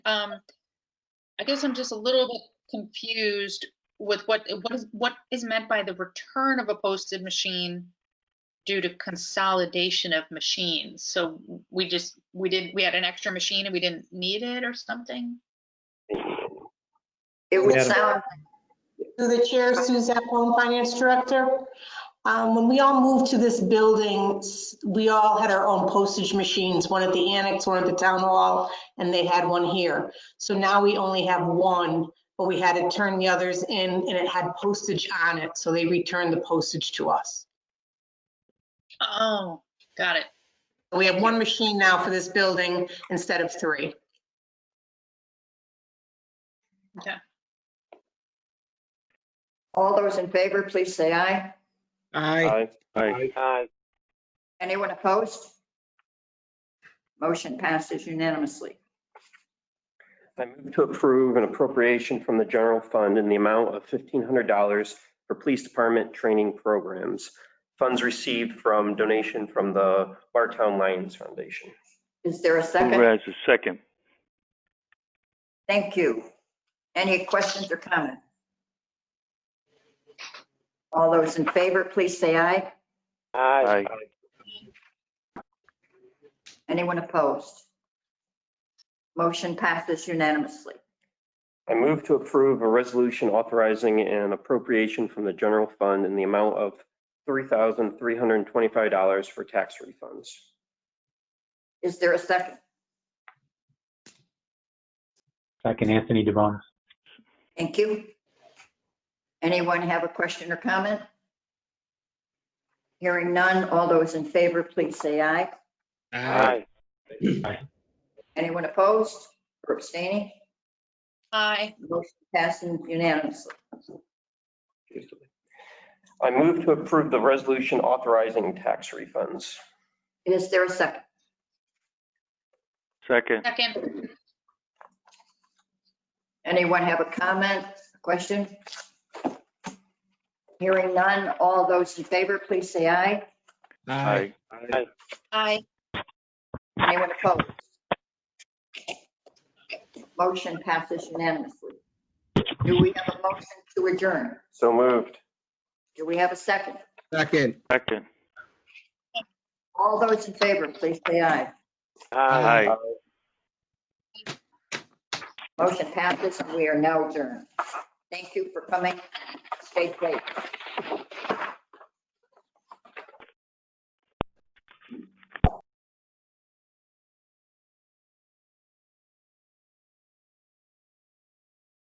um, I guess I'm just a little bit confused with what, what is, what is meant by the return of a posted machine due to consolidation of machines. So we just, we did, we had an extra machine and we didn't need it or something? It would Madam- sound, Through the chair, Suzette Bone, Finance Director. Um, When we all moved to this building, s- we all had our own postage machines, one at the annex, one at the town hall, and they had one here. So now we only have one, but we had to turn the others in and it had postage on it, so they returned the postage to us. Oh, got it. We have one machine now for this building instead of three. all those in favor, please say aye. Aye. Aye. Aye. Aye. Anyone opposed? Motion passes unanimously. I move to approve an appropriation from the general fund in the amount of $1,500 for police department training programs. Funds received from donation from the Bartown Lions Foundation. Is there a second? Whereas the second. Thank you. Any questions or comments? All those in favor, please say aye. Aye. Anyone opposed? Motion passes unanimously. I move to approve a resolution authorizing an appropriation from the general fund in the amount of $3,325 for tax refunds. Is there a second? Second, Anthony DeBona. Thank you. Anyone have a question or comment? Hearing none, all those in favor, please say aye. Aye. Anyone opposed or abstaining? Aye, Motion passes unanimously. I move to approve the resolution authorizing tax refunds. Is there a second? Second. second, Anyone have a comment, question? Hearing none, all those in favor, please say aye. Aye. aye, Anyone opposed? Motion passes unanimously. Do we have a motion to adjourn? So moved. Do we have a second? Second. Second. All those in favor, please say aye. Aye. Motion passes, and we are now adjourned. Thank you for coming. Stay safe.